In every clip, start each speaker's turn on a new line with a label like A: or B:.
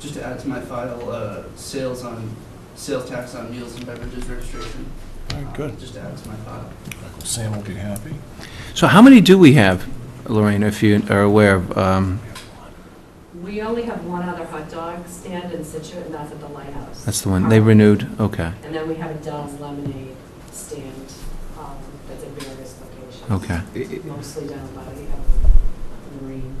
A: Just to add to my file, uh, sales on, sales tax on meals and beverages registration.
B: All right, good.
A: Uh, Just to add to my file.
B: Sam will be happy.
C: So how many do we have, Lorraine, if you are aware of? um,
D: We only have one other hot dog stand in Situate, and that's at the Lighthouse.
C: That's the one, they renewed, okay,
D: And then we have a Don's Lemonade stand um, that's at various locations.
C: okay.
D: Mostly down by the um, the Marine.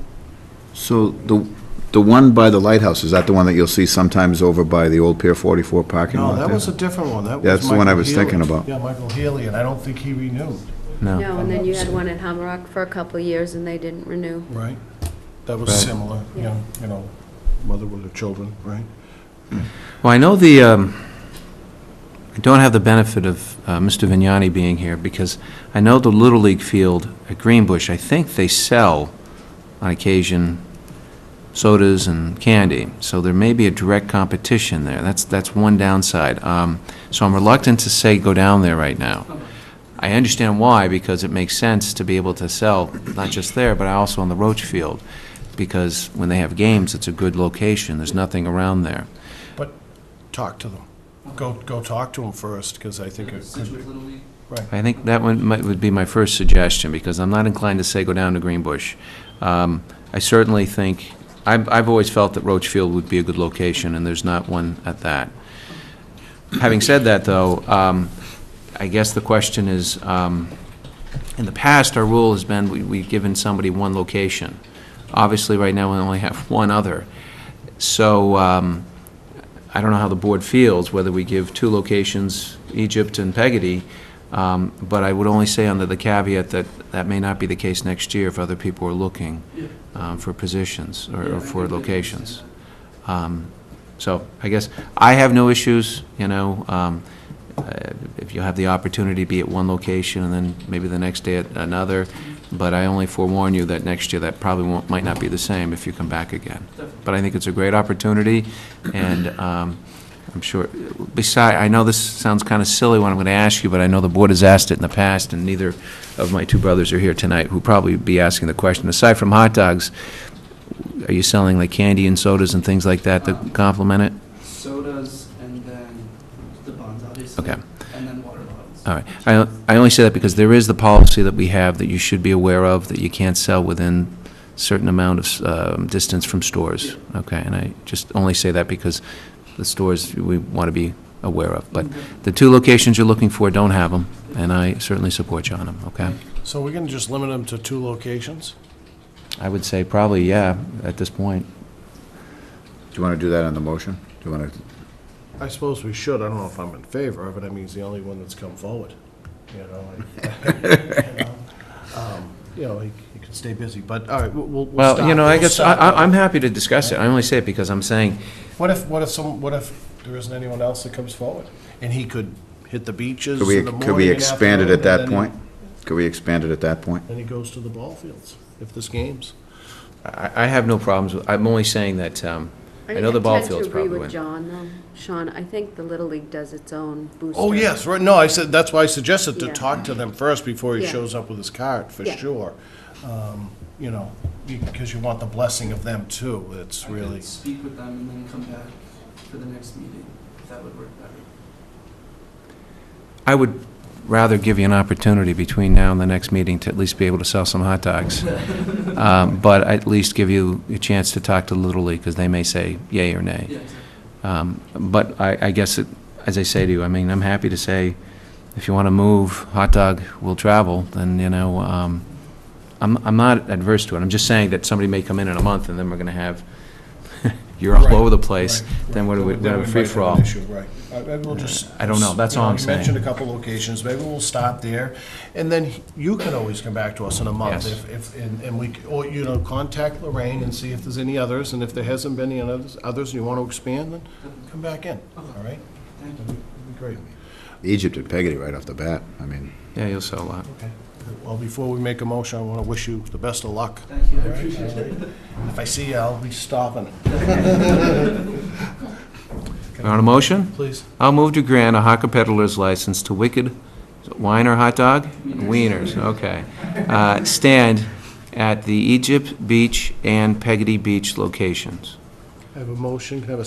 E: So the, the one by the lighthouse, is that the one that you'll see sometimes over by the old Pier 44 parking lot?
B: No, that
E: there?
B: was a different one. That was
E: That's the one I
B: Michael
E: was thinking
B: Healy.
E: about.
B: Yeah, Michael Healy, and I don't think he renewed.
C: No,
F: No, and then you had one in Hammerock for a couple of years, and they didn't renew.
B: Right. That was
C: Right.
B: similar, young, you know, mother with her children, right?
C: well, I know the, um, I don't have the benefit of uh, Mr. Vignani being here, because I know the Little League field at Greenbush, I think they sell on occasion sodas and candy, so there may be a direct competition there, that's, that's one downside. Um, So I'm reluctant to say go down there right now. I understand why, because it makes sense to be able to sell, not just there, but also on the Roach Field, because when they have games, it's a good location, there's nothing around there.
B: Talk to them. Go, go talk to them first, because I think it could
A: Situate Little League.
C: I think that one might, would be my first suggestion, because I'm not inclined to say go down to Greenbush. Um, I certainly think, I've, I've always felt that Roach Field would be a good location, and there's not one at that. Having said that, though, um, I guess the question is, um, in the past, our rule has been, we, we've given somebody one location. Obviously, right now, we only have one other. So, um, I don't know how the board feels, whether we give two locations, Egypt and Peggotty, um, but I would only say under the caveat that that may not be the case next year if other people are looking
A: Yeah.
C: um, for positions or-
A: Yeah, I
C: or for
A: think we can
C: locations.
A: understand
C: Um, So I guess, I have no issues, you know, um, uh, if you have the opportunity to be at one location and then maybe the next day at another, but I only forewarn you that next year, that probably won't, might not be the same if you come back again.
A: that. Definitely.
C: But I think it's a great opportunity, and um, I'm sure, beside, I know this sounds kind of silly what I'm going to ask you, but I know the board has asked it in the past, and neither of my two brothers are here tonight, who probably would be asking the question. Aside from hot dogs, are you selling like candy and sodas and things like that that complement it?
A: Sodas and then the bonds, obviously.
C: Okay. Uh,
A: And then water bottles.
C: All right. I I only say that because there is the policy that we have that you should be aware of, that you can't sell within certain amount of um, distance from stores. Okay, and I just only say that because the stores we want to be aware of. But
F: Mm-hmm.
C: the two locations you're looking for, don't have them, and I certainly support you on them, okay?
B: So we're going to just limit them to two locations?
C: I would say probably, yeah, at this point.
E: Do you want to do that on the motion? Do you want to,
B: I suppose we should. I don't know if I'm in favor of it. I mean, he's the only one that's come forward, you know? like, you know, um, You know, he he could stay busy, but, all right, we'll- we'll, we'll stop.
C: Well, you know, I
B: We'll
C: guess, I-
B: stop.
C: I- I'm happy to discuss it. I only say it because I'm saying,
B: What if, what if some, what if there isn't anyone else that comes forward? And he could hit the beaches
E: could
B: in
E: we,
B: the morning
E: could we
B: and
E: expand
B: afternoon,
E: it at
B: and
E: that
B: then-
E: point? Could we expand it at that point?
B: Then he goes to the ball fields, if this game's.
C: I I have no problems, with I'm only saying that, um, I know the ball field's
F: I tend to
C: probably
F: agree with
C: win.
F: John, though. Sean, I think the Little League does its own booster.
B: Oh, yes, right, no, I said, that's why I suggested to
F: Yeah.
B: talk to them first before he
F: Yeah.
B: shows up with his card, for
F: Yeah.
B: sure. Um, You know, because you want the blessing of them too, it's
A: I could
B: really,
A: Speak with them and then come back for the next meeting, if that would work better.
C: I would rather give you an opportunity between now and the next meeting to at least be able to sell some hot dogs. Um, But at least give you a chance to talk to Little League, because they may say yay or nay.
A: Yeah, exactly.
C: Um, But I, I guess, it- as I say to you, I mean, I'm happy to say, if you want to move, hot dog will travel, then, you know, um, I'm, I'm not adverse to it. I'm just saying that somebody may come in in a month, and then we're going to have, you're all
B: Right,
C: over the place,
B: right,
C: then
B: right.
C: what do we,
B: Then
C: we have
B: might
C: a
B: an
C: free-for-all.
B: issue, right. I- Maybe we'll just.
C: I don't know. That's
B: you
C: all I'm
B: you
C: saying.
B: mentioned a couple locations, maybe we'll stop there, and then you can always come back to us in a month
C: Yes.
B: if, if, and and we, c- or, you know, contact Lorraine and see if there's any others, and if there hasn't been any others, others you want to expand, then come back in, all right?
A: Thank you.
B: That'd be that'd be great.
E: Egypt and Peggotty right off the bat, I mean.
C: Yeah, you'll sell a lot.
B: Okay. Well, before we make a motion, I want to wish you the best of luck.
A: Thank you, I
B: All right,
A: appreciate
B: all
A: it.
B: right. If I see you, I'll be stopping,
C: On a motion?
B: please.
C: I'll move to grant a hawker Peddler's license to Wicked Winer Hot Dog? Wieners, okay. Uh, Stand at the Egypt Beach and Peggotty Beach locations.
B: I have a motion, can I have a